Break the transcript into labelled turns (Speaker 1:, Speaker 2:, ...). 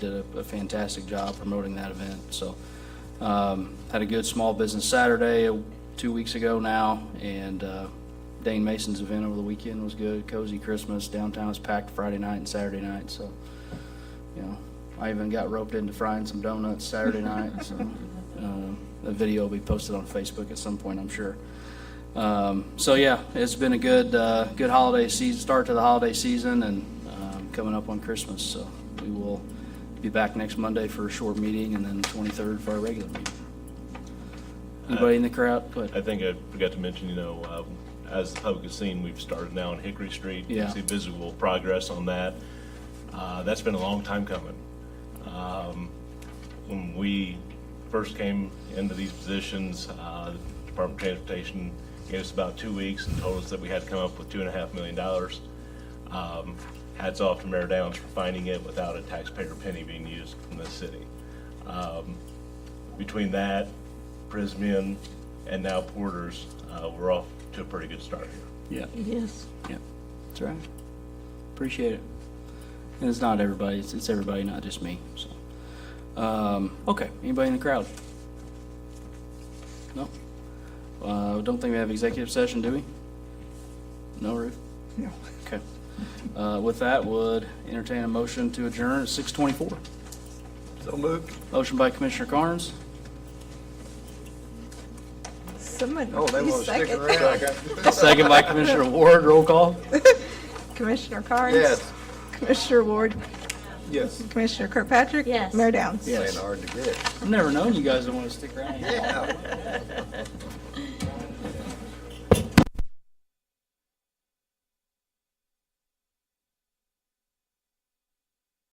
Speaker 1: did a- a fantastic job promoting that event, so. um, Had a good small business Saturday, uh, two weeks ago now, and uh, Dane Mason's event over the weekend was good, cozy Christmas, downtown was packed Friday night and Saturday night, so, you know, I even got roped into frying some donuts Saturday night, so. um, The video will be posted on Facebook at some point, I'm sure. Um, so yeah, it's been a good, uh, good holiday season, start to the holiday season and, um, coming up on Christmas. So we will be back next Monday for a short meeting and then twenty-third for our regular meeting. Anybody in the crowd? Go
Speaker 2: I
Speaker 1: ahead.
Speaker 2: think I forgot to mention, you know, um, as the public has seen, we've started now on Hickory Street. You
Speaker 1: Yeah.
Speaker 2: can See visible progress on that. Uh, That's been a long time coming. Um, When we first came into these positions, uh, the Department of Transportation gave us about two weeks and told us that we had to come up with two and a half million dollars. Um, Hats off to Mayor Downs for finding it without a taxpayer penny being used from the city Um, between that, Prismian, and now Porter's, uh, we're off to a pretty good start here.
Speaker 1: Yeah,
Speaker 3: Yes.
Speaker 1: yeah. That's right. Appreciate it. And it's not everybody, it's, it's everybody, not just me, so. Um, okay, anybody in the crowd? No? Uh, don't think we have executive session, do we? No, Ruth? Okay. Uh, With that, would entertain a motion to adjourn at 6:24.
Speaker 4: So moved.
Speaker 1: Motion by Commissioner Carnes,
Speaker 3: Someone,
Speaker 4: Oh, they
Speaker 3: please
Speaker 4: want to stick
Speaker 3: second.
Speaker 4: around.
Speaker 1: second by Commissioner Ward, roll call.
Speaker 3: Commissioner Carnes?
Speaker 4: Yes.
Speaker 3: Commissioner Ward?
Speaker 4: Yes.
Speaker 3: Commissioner Kirkpatrick?
Speaker 5: Yes.
Speaker 3: Mayor Downs?
Speaker 1: Yes.
Speaker 4: Playing hard to get.
Speaker 1: I've never known you guys don't want to stick around.
Speaker 4: Yeah.